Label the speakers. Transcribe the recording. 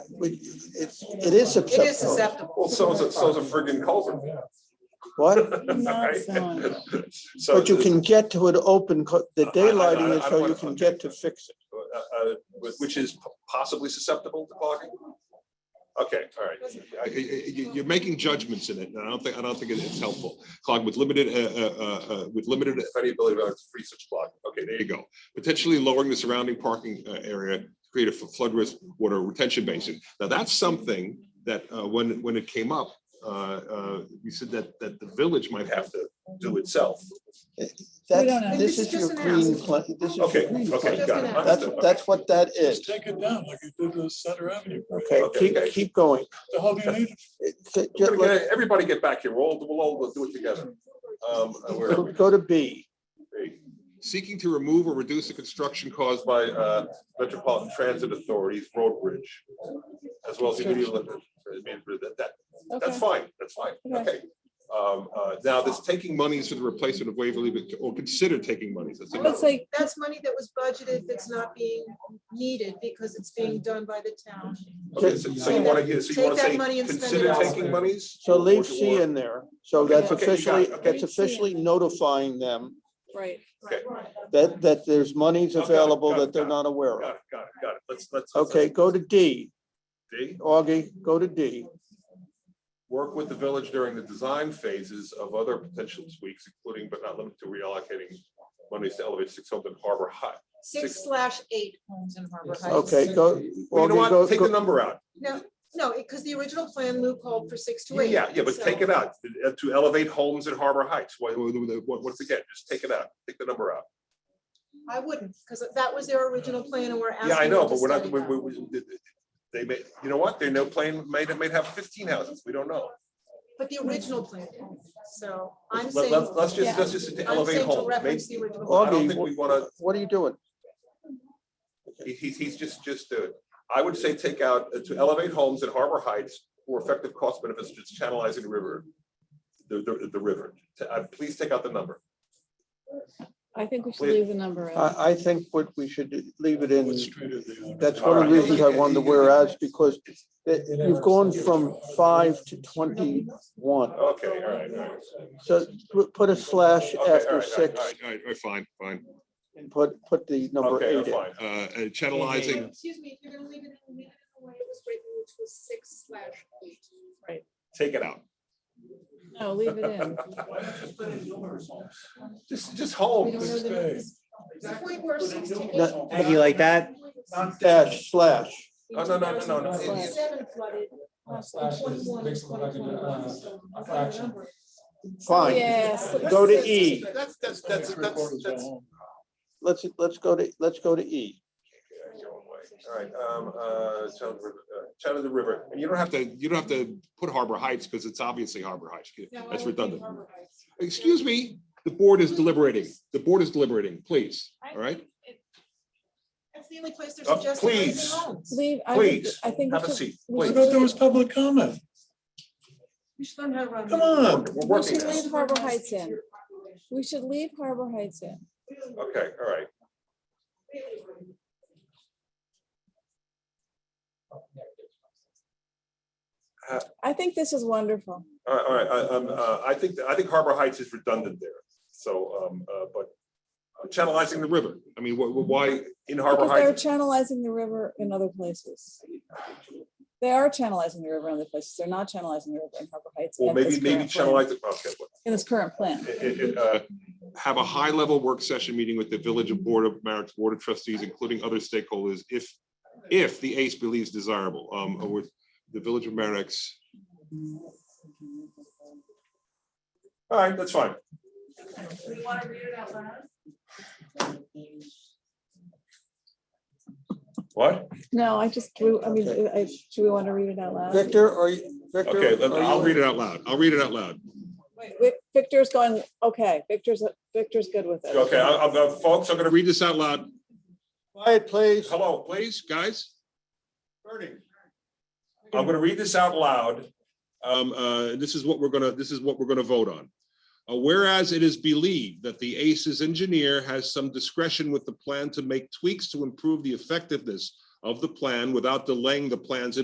Speaker 1: we- it's, it is
Speaker 2: It is
Speaker 1: susceptible.
Speaker 2: susceptible.
Speaker 3: Well, so's a, so's a friggin' culvert.
Speaker 1: What?
Speaker 3: Right? So
Speaker 1: But you
Speaker 3: the-
Speaker 1: can get to an open, co- the
Speaker 3: I- I-
Speaker 1: daylighting
Speaker 3: I-
Speaker 1: is
Speaker 3: I
Speaker 1: so
Speaker 3: wanna-
Speaker 1: you can get to fix it.
Speaker 3: uh, uh, Which is possibly susceptible to clogging? Okay, all right.
Speaker 4: I- I- I- you- You're making judgments in it, and I don't think, I don't think it's helpful. Clog with limited, uh, uh, uh, uh, with limited,
Speaker 3: If any ability to free such clogging, okay,
Speaker 4: there you go. Potentially lowering the surrounding parking uh, area, create a flood risk water retention basin. Now, that's something that uh, when, when it came up, uh, uh, you said that, that the village might
Speaker 3: they have
Speaker 4: have
Speaker 3: to do itself.
Speaker 5: don't know.
Speaker 1: That's,
Speaker 2: This
Speaker 1: this
Speaker 2: is
Speaker 1: is your
Speaker 2: just an
Speaker 1: green,
Speaker 2: ask.
Speaker 1: pla- this is your
Speaker 3: Okay,
Speaker 1: green
Speaker 3: okay,
Speaker 1: plan.
Speaker 3: got it.
Speaker 1: That's,
Speaker 3: understood,
Speaker 1: that's what that
Speaker 5: Just
Speaker 1: is.
Speaker 5: take it down like you did with Center Avenue.
Speaker 1: Okay,
Speaker 3: Okay,
Speaker 1: keep,
Speaker 3: okay.
Speaker 1: keep going.
Speaker 5: The hell do you need it
Speaker 1: It- it-
Speaker 3: We're
Speaker 1: just
Speaker 3: gonna
Speaker 1: like-
Speaker 3: get- Everybody get back here, we'll, all- we'll all do it together. Um, where are
Speaker 1: Go
Speaker 3: we?
Speaker 1: go to B.
Speaker 4: seeking to remove or reduce the construction caused
Speaker 3: Caused by uh, Metropolitan Transit Authority's road bridge, as well as the community limit. That- that-
Speaker 5: for?
Speaker 3: That's fine, that's fine, okay. Um, uh, Now, this
Speaker 4: taking monies for the replacement of Waverly, but- or consider taking monies. That's another-
Speaker 6: It's like,
Speaker 2: That's money that was budgeted that's not being needed because it's being done by the town.
Speaker 3: Okay, so so you wanna, so you wanna
Speaker 2: Take that
Speaker 3: say,
Speaker 2: money and spend it
Speaker 3: consider taking
Speaker 2: elsewhere.
Speaker 3: monies?
Speaker 1: So leave
Speaker 3: Or-
Speaker 1: C
Speaker 3: or-
Speaker 1: in there. So
Speaker 3: Okay,
Speaker 1: that's
Speaker 3: okay, you got
Speaker 1: officially,
Speaker 3: it, okay.
Speaker 1: that's officially notifying them
Speaker 6: right,
Speaker 3: Okay,
Speaker 1: that, that there's monies
Speaker 3: Got it,
Speaker 1: available
Speaker 3: got it,
Speaker 1: that they're
Speaker 3: got
Speaker 1: not aware
Speaker 3: Got
Speaker 1: of.
Speaker 3: it, got it, got it, let's, let's. let's-
Speaker 1: Okay, go to D.
Speaker 3: D,
Speaker 1: Augie, go to D.
Speaker 3: work with the village during the design phases of other potential tweaks, including but not limited to reallocating monies to elevate six Holmes and Harbor High.
Speaker 2: Six slash eight homes in Harbor Heights.
Speaker 1: Okay, go.
Speaker 3: Well, you
Speaker 1: Augie, go-
Speaker 3: know what, take the
Speaker 1: go-
Speaker 3: number out,
Speaker 2: No, no, because the original plan Lou called for six to eight.
Speaker 3: yeah, yeah, but take it out, Uh, to elevate homes in Harbor Heights, what, what, once again, just take it out, take the number out.
Speaker 2: I wouldn't, because that was their original plan and we're asking.
Speaker 3: Yeah, I know,
Speaker 2: them to
Speaker 3: but we're not,
Speaker 2: study
Speaker 3: we,
Speaker 2: that.
Speaker 3: we, we- they may, you know what, they know plane may, may have fifteen houses, we don't know.
Speaker 2: But the original plan, so I'm
Speaker 3: Let-
Speaker 2: saying.
Speaker 3: Let's, let's just,
Speaker 2: yeah,
Speaker 3: let's just
Speaker 2: I'm
Speaker 3: elevate
Speaker 2: saying to
Speaker 3: homes,
Speaker 2: reference
Speaker 3: maybe,
Speaker 2: the original.
Speaker 3: I
Speaker 2: plan.
Speaker 3: don't think we
Speaker 1: Augie,
Speaker 3: wanna,
Speaker 1: wh- what are you doing?
Speaker 3: he- he's, he's just, just do it. I would say take out, uh, to elevate homes in Harbor Heights for effective cost benefits, just channelizing the river. The, the, the river, To- uh, please take out the number.
Speaker 6: I think we should
Speaker 3: Wait.
Speaker 6: leave the number out.
Speaker 1: I, I think what we should leave it in,
Speaker 5: What street are they on?
Speaker 1: that's one of the reasons I wanted the whereas, because it- you've gone from five to twenty-one.
Speaker 3: Okay, all right, all right.
Speaker 1: So pu- put a slash
Speaker 3: Okay, all right, all
Speaker 1: after
Speaker 3: right,
Speaker 1: six
Speaker 3: all right.
Speaker 4: All right, all right, fine, fine.
Speaker 1: and put, put the number
Speaker 3: Okay,
Speaker 1: eight
Speaker 3: I'm
Speaker 1: in.
Speaker 3: fine.
Speaker 4: Uh, uh, Channelizing
Speaker 2: Excuse me, if you're gonna leave it in, leave it in the way it was written, which was six slash eight.
Speaker 3: Take it out.
Speaker 6: No, leave it in.
Speaker 3: Just, just
Speaker 2: We don't know
Speaker 3: homes.
Speaker 2: the numbers. The point where six to eight.
Speaker 1: No,
Speaker 7: How do you like that?
Speaker 1: Dash slash.
Speaker 3: Oh, no, no, no, no, no.
Speaker 2: Seven flooded. uh,
Speaker 7: Slash is
Speaker 2: 21,
Speaker 7: big flooded,
Speaker 2: 21,
Speaker 7: uh,
Speaker 2: so I got a
Speaker 7: fraction.
Speaker 2: number.
Speaker 1: Fine.
Speaker 6: Yes.
Speaker 1: Go to E.
Speaker 3: That's, that's, that's, that's, that's.
Speaker 5: All
Speaker 1: Let's, let's go to, let's go to E.
Speaker 3: Yeah, your own way. All right, um, uh, Child of the River- uh, Child of the River, and you don't have
Speaker 4: have to, you don't have to put Harbor Heights because it's obviously Harbor Heights.
Speaker 2: No, I
Speaker 4: That's
Speaker 2: would think
Speaker 4: redundant.
Speaker 2: Harbor Heights.
Speaker 4: Excuse me, the board is deliberating. The board is deliberating, please. All right?
Speaker 2: That's the only place they're
Speaker 3: Uh,
Speaker 2: suggesting. raising
Speaker 3: please.
Speaker 2: homes.
Speaker 6: Leave, I think,
Speaker 3: Please,
Speaker 6: I think. we
Speaker 3: have a
Speaker 6: should-
Speaker 3: seat,
Speaker 6: we
Speaker 5: I
Speaker 6: should
Speaker 5: thought there
Speaker 6: leave-
Speaker 5: was public comment.
Speaker 2: You should um, learn how to run.
Speaker 5: Come on.
Speaker 3: to, we're
Speaker 6: We
Speaker 3: working
Speaker 6: should
Speaker 3: now.
Speaker 6: leave Harbor Heights in. We should leave Harbor Heights in.
Speaker 3: Okay, all right.
Speaker 6: I think this is wonderful.
Speaker 3: All right, all right, I, um, uh, I think, I think Harbor Heights is redundant there, so, um, uh, but uh, channelizing the river, I mean, wh- wh- why in Harbor
Speaker 6: Because they're
Speaker 3: Heights?
Speaker 6: channelizing the river in other places. They are channelizing the river in other places. They're not channelizing the river in Harbor Heights.
Speaker 3: Well,
Speaker 6: in this
Speaker 3: maybe, maybe
Speaker 6: current plan-
Speaker 3: channelize it, okay, well,
Speaker 6: In this current plan.
Speaker 3: it- it- it, uh,
Speaker 4: Have a high-level work session meeting with the Village of Board of Marriage Board of Trustees, including other stakeholders, if, if the ACE believes desirable, um, or with the Village of Merrick's
Speaker 3: all right, that's fine. What?
Speaker 6: No, I just, drew- I mean, I, do we want to read it out loud?
Speaker 1: Victor, are you, Victor?
Speaker 3: Okay, let-
Speaker 1: are you-
Speaker 4: I'll read it out loud. I'll read it out loud.
Speaker 6: Vic- Victor's going, okay, Victor's, Victor's good with it.
Speaker 3: Okay, I, I'm, uh, folks, I'm gonna,
Speaker 4: I'm gonna read this out loud.
Speaker 1: Quiet, please.
Speaker 3: hello, please.
Speaker 4: Please, guys.
Speaker 3: I'm gonna read this out loud.
Speaker 4: um, uh, this is what we're gonna, this is what we're gonna vote on. Uh, whereas it is believed that the ACE's engineer has some discretion with the plan to make tweaks to improve the effectiveness of the plan without delaying the plan's